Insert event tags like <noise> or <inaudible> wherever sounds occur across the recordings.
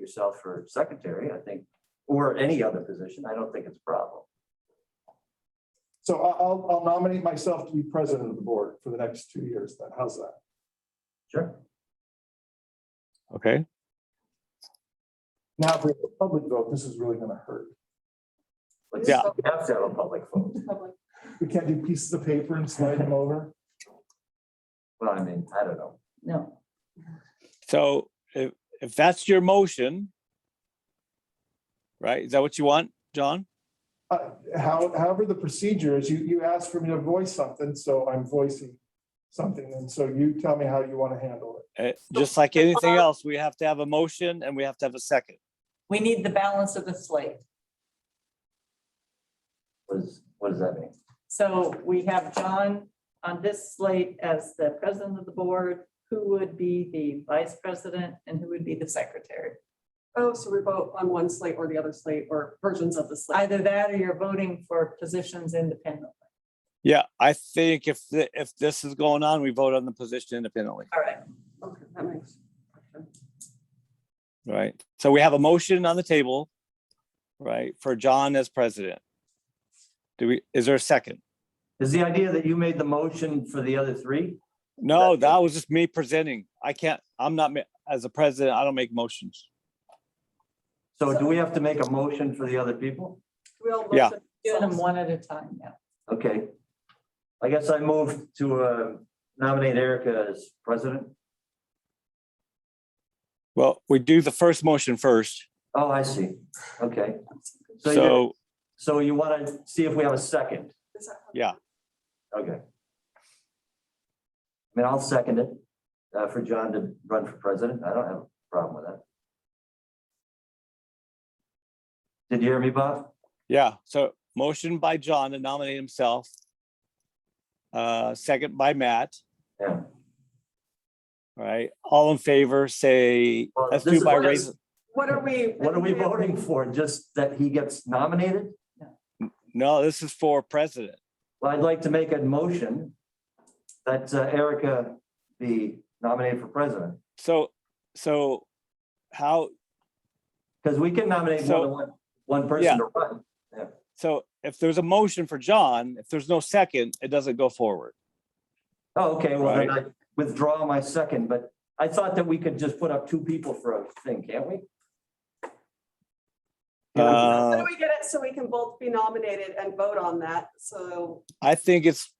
yourself for secretary, I think, or any other position, I don't think it's a problem. So I- I'll, I'll nominate myself to be president of the board for the next two years then. How's that? Sure. Okay, Now, if we have a public vote, this is really gonna hurt. But you Yeah. have to have a public vote. We can't do pieces of paper and slide them over. Well, I mean, I don't know. No. so if, if that's your motion, right, is that what you want, John? Uh, How, however, the procedure is, you, you asked for me to voice something, so I'm voicing something. And so you tell me how you want to handle it. Uh, Just like anything else, we have to have a motion and we have to have a second. We need the balance of the slate. What is, what does that mean? So we have John on this slate as the president of the board, who would be the vice president and who would be the secretary. Oh, so we vote on one slate or the other slate or versions of the slate. Either that or you're voting for positions independently. Yeah, I think if, the- if this is going on, we vote on the position independently, All right. Okay, that makes. okay. right? So we have a motion on the table, right, for John as president. Do we, is there a second? Is the idea that you made the motion for the other three? No, that was just me presenting. I can't, I'm not, ma- as a president, I don't make motions. So do we have to make a motion for the other people? We all Yeah. motion Do them one at a time now. Okay. I guess I move to uh, nominate Erica as president. Well, we do the first motion first, Oh, I see. Okay. So you, so, so you want to see if we have a second? Is that how- yeah, Okay. I mean, I'll second it uh, for John to run for president. I don't have a problem with that. Did you hear me, Bob? yeah, so motion by John to nominate himself. Uh, second by Matt. Yeah. All right, all in favor, say, Well, let's this do is by what raise, What are we? What are we voting for? Just that he gets nominated? no, this is for president. Well, I'd like to make a motion that uh, Erica be nominated for president. So, so how, Because we can nominate more So- than one, one Yeah. person to run. so if there's a motion for John, if there's no second, it doesn't go forward. Oh, okay, well, then I withdraw my second, but I thought that we could just put up two people for a thing, can't we? Yeah, How do Uh, we get it so we can both be nominated and vote on that? So I think it's,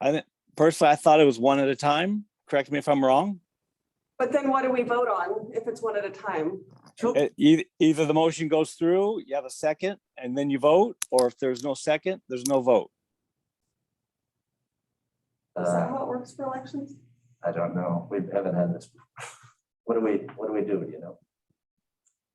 I, thi- personally, I thought it was one at a time. Correct me if I'm wrong. But then what do we vote on if it's one at a time? two- It- eith- E, Either the motion goes through, you have a second, and then you vote, or if there's no second, there's no vote. Is that Uh, how it works for elections? I don't know. We haven't had this. <laughs> What do we, what do we do, you know?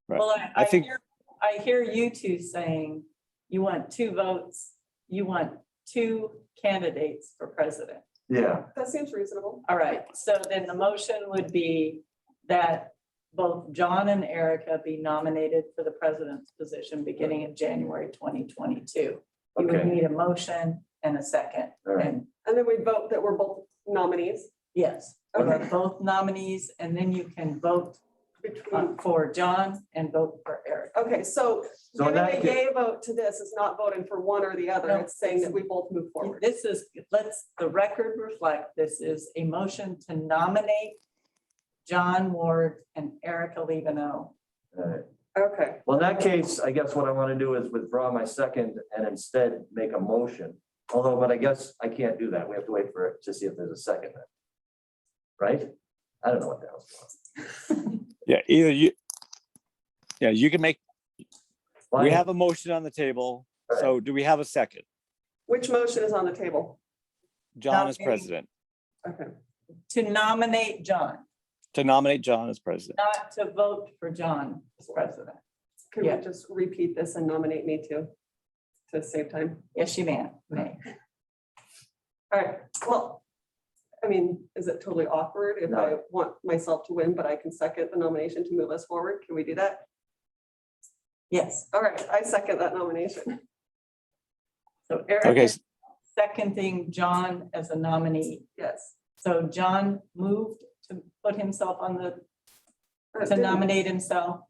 Right. Well, I think- hear- I hear you two saying you want two votes, you want two candidates for president. Yeah, That seems reasonable. All right, so then the motion would be that both John and Erica be nominated for the president's position beginning in January twenty twenty-two. You would okay, need a motion and a second, all right. and And then we vote that we're both nominees yes, Okay. both nominees, and then you can vote uh, between. for John and vote for Erica. Okay, so Uh, So in giving that a case, yay vote to this is not voting for one or the other. No. It's saying that we both move forward. This is, let's the record reflect, this is a motion to nominate John Ward and Erica Levino. all right. Okay. Well, in that case, I guess what I want to do is withdraw my second and instead make a motion. Although, but I guess I can't do that. We have to wait for it to see if there's a second. then. Right? I don't know what that was. Yeah, either you, yeah, you can make, we Why- have a motion on the table, so do we have a second? Which motion is on the table? John as Nominating. president, Okay. To nominate John, to nominate John as president. not to vote for John as president. Can we Yeah. just repeat this and nominate me too? To save time? Yes, you may, may. All right, well, I mean, is it totally awkward if I No. want myself to win, but I can second the nomination to move us forward? Can we do that? Yes, All right, I second that nomination. so Okay, Erica s- seconding John as a nominee. Yes. So John moved to put himself on the, to Uh, didn't- nominate himself.